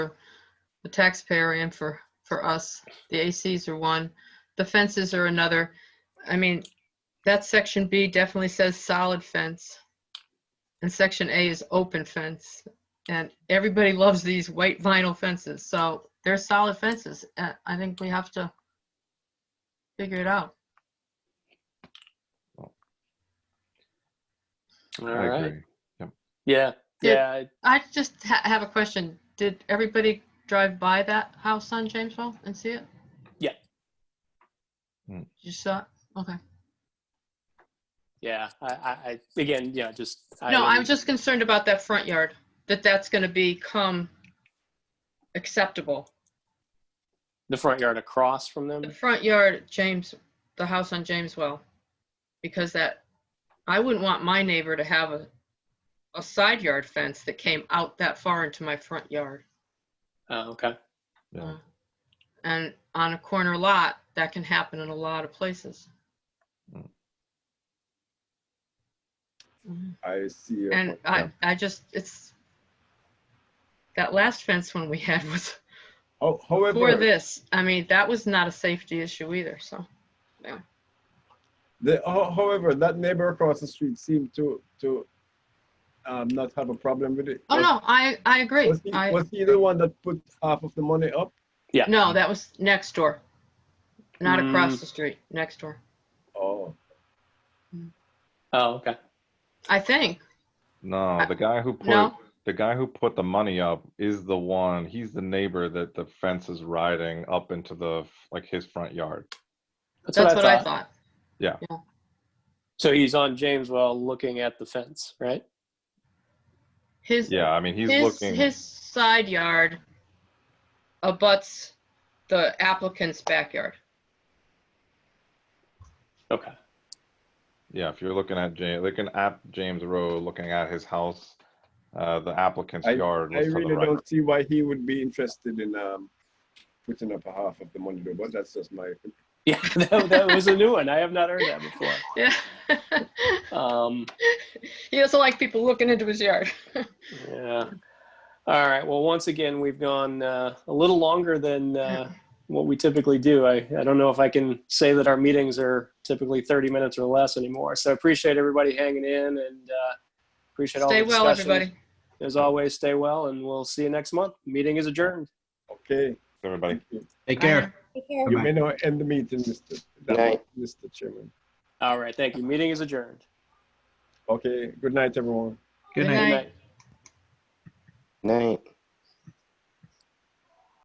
the taxpayer and for, for us. The ACs are one, the fences are another. I mean, that section B definitely says solid fence. And section A is open fence. And everybody loves these white vinyl fences, so they're solid fences. Uh, I think we have to figure it out. All I right. agree. Yeah, Yeah. yeah. I- I just ha- have a question. Did everybody drive by that house on Jamesville and see it? Yeah. Mm. You saw it? Okay. Yeah, I, I, I- again, yeah, just. I No, I'm didn't- just concerned about that front yard, that that's gonna become acceptable. The front yard across from them. The front yard, James, the house on Jameswell, because that, I wouldn't want my neighbor to have a, a side yard fence that came out that far into my front yard. Oh, okay. Yeah. And on a corner lot, that can happen in a lot of places. Mm. Mhm. I see. your And point. I, I just, it's, that last fence one we had was Ho- for However, this. I mean, that was not a safety issue either, so. the, ho- however, that neighbor across the street seemed to, to um, not have a problem with it. Oh, Was- no, I, I agree. Was he, I, was he the one that put half of the money up? No, that was next door. Not across Mm. the street, next door. Oh, Oh, okay. I think. No, the guy who put, No? the guy who put the money up is the one, he's the neighbor that the fence is riding up into the, f- like his front yard. That's, That's what I thought. So he's on Jameswell looking at the fence, right? His, Yeah, I mean, he's his, looking, his side yard abuts the applicant's backyard. Okay. yeah, if you're looking at James, looking at James Road, looking at his house, uh, the applicant's I- yard I was to the really right. don't see why he would be interested in um, putting up a half of the money though, but that's just my, Yeah, that, that was a new one. I have not heard that before. Yeah. Um, He doesn't like people looking into his yard. yeah. All right. Well, once again, we've gone uh, a little longer than uh, what we typically do. I, I don't know if I can say that our meetings are typically 30 minutes or less anymore. So I appreciate everybody hanging in and uh, appreciate all Stay the well, discussions. everybody. As always, stay well, and we'll see you next month. Meeting is adjourned. okay. Everybody. Take Bye. care. Take care. You Bye-bye. may now end the meeting, Mr. Good night. Mr. Chairman. All right. Thank you. Meeting is adjourned. Okay, good night, everyone. Good Good night. night. Good night. Night.